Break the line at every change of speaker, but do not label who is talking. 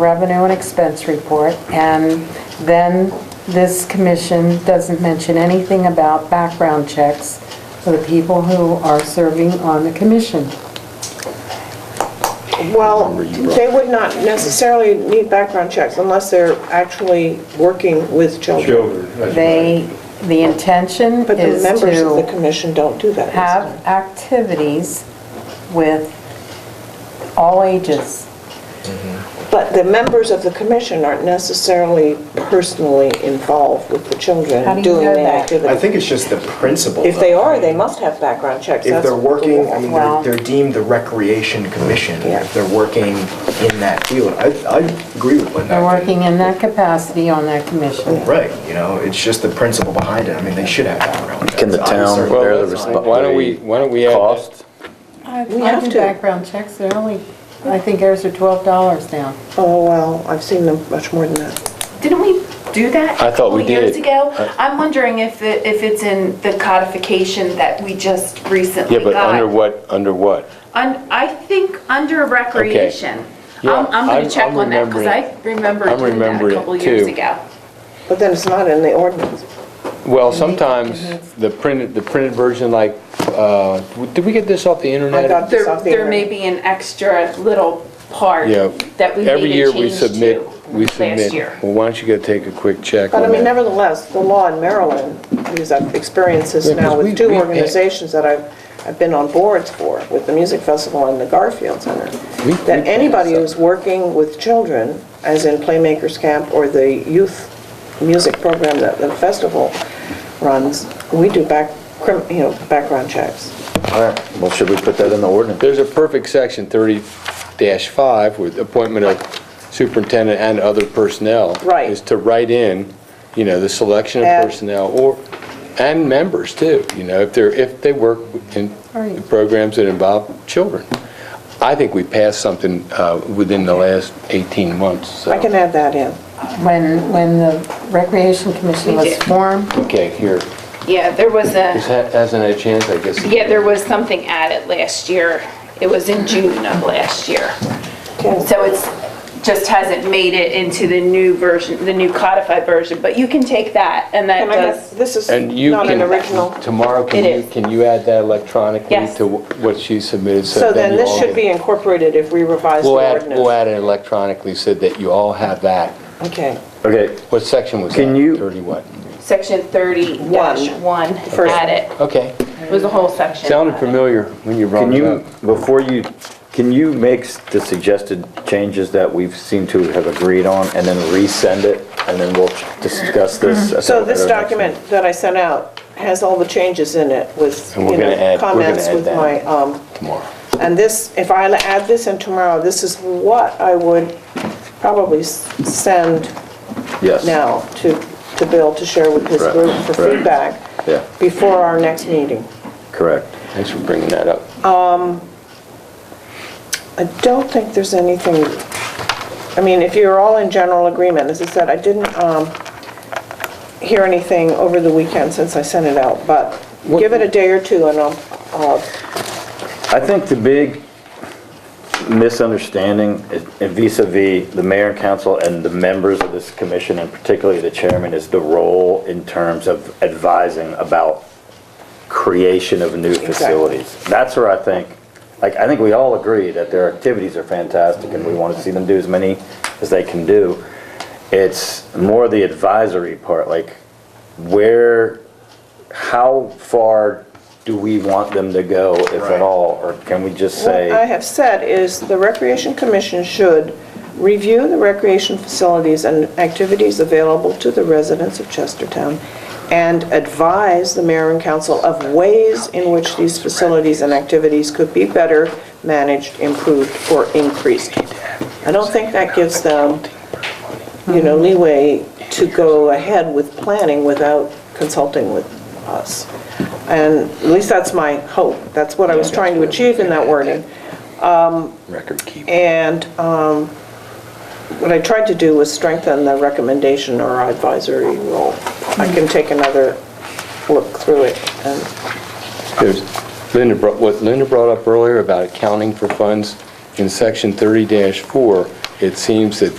revenue and expense report, and then this commission doesn't mention anything about background checks for the people who are serving on the commission.
Well, they would not necessarily need background checks unless they're actually working with children.
Children, that's
They,
right.
the intention
But the
is
members of the
to
commission don't do that.
have activities with all ages.
But the members of the commission aren't necessarily personally involved with the
How do
children
you
doing
know
the
that?
activity.
I think it's just the principle.
If they
though.
are, they must have background checks.
If
That's
they're
the
working,
law.
I mean,
Well-
they're- they're deemed the recreation commission,
Yeah.
if they're working in that field. I, I agree with what
They're
that
working in that capacity on that commission.
Right, you know, it's just the principle behind it. I mean, they should have background.
Can the
checks.
town
Obviously,
bear the
that's
responsibility?
Why don't we, why don't we add that?
Cost?
I
We
I
have
do
to.
background checks, they're only, I think ours are $12 now.
Oh, well, I've seen them much more than that.
Didn't we do that?
I thought we
A couple years
did. Uh,
ago? I'm wondering if it, if it's in the codification that we just recently
Yeah,
got.
but under what, under what?
Un- I think under recreation. I'm,
Yeah,
I'm gonna
I'm-
check
I'm
on that, because I remember
I'm
doing that a
remembering it,
couple years
too.
ago.
But then it's not in the ordinance.
Well, sometimes the printed, the printed version, like, uh, did we get this off the internet?
I got this
There,
off the
there may
internet.
be an extra little part
Yeah.
that we
Every
made a
year we
change
submit,
to
we
last
submit.
year.
Well, why don't you go take a quick check
But I
on
mean,
that?
nevertheless, the law in Maryland, because I've experienced this
Yeah, 'cause
now
we-
with two
we-
organizations that I've, I've been on boards for, with the music festival and the Garfield Center,
We-
that
we-
anybody who's working with children, as in Playmakers Camp or the youth music program that the festival runs, we do back, crim- you know, background checks.
All right, well, should we put that in the ordinance?
There's a perfect section, 30-5, with appointment of superintendent and other personnel.
Right.
Is to write in, you know, the selection of
Add-
personnel or, and members too, you know, if they're, if they work in
Right.
programs that involve children. I think we passed something uh, within the last 18 months, so.
I can add that in.
When, when the Recreation Commission
We
was
did.
formed,
Okay, here.
Yeah, there was a,
This ha- hasn't had a chance, I guess.
yeah, there was something added last year. It was in June of last year.
Okay.
So it's, just hasn't made it into the new version, the new codified version, but you can take that, and that
Can I
does,
have- This is
And you
not
can.
an original.
Tomorrow, can
It
you,
is.
can you add that electronically?
Yes.
To wh- what she submitted?
So then
you
this
all
should be
can-
incorporated if we revise the
We'll add, we'll
ordinance.
add it electronically so that you all have that.
Okay.
Okay,
What section was that?
Can you-
30 what?
section 30-1
First
at it.
Okay.
It was a whole section.
Sounded familiar when you brought
can
it
you,
up.
before you, can you make s- the suggested changes that we've seemed to have agreed on and then resend it? And then we'll discuss this. at
So
the-
this
at our next meeting?
document that I sent out has all the changes in it with,
And we're
you
gonna
know,
add- we're gonna
comments
add
with
that.
my, um,
Tomorrow.
and this, if I add this in tomorrow, this is what I would probably s- send
Yes.
now to, to Bill to share with his
Right,
group for
right.
feedback
Yeah.
before our next meeting.
Correct.
Thanks for bringing that up.
I don't think there's anything, I mean, if you're all in general agreement, as I said, I didn't um, hear anything over the weekend since I sent it out, but give it a day or two and I'll, I'll-
I think the big misunderstanding i- vis a vis the mayor and council and the members of this commission, and particularly the chairman, is the role in terms of advising about creation of new facilities. That's where I think, like, I think we all agree that their activities are fantastic and we want to see them do as many as they can do. It's more the advisory part, like, where, how far do we want them to go, if at
Right.
all? Or can we just say?
what I have said is the Recreation Commission should review the recreation facilities and activities available to the residents of Chestertown and advise the mayor and council of ways in which these facilities and activities could be better managed, improved, or increased. I don't think that gives them, you
Uh-huh.
know, leeway to go ahead with planning without consulting with us. And at least that's my hope. That's what I was trying to achieve in that wording. Um,
Record keeping.
And um, what I tried to do was strengthen the recommendation or advisory role. I
Mm-hmm.
can take another look through it and,
There's, Linda brought, what Linda brought up earlier about accounting for funds, in section 30-4, it seems that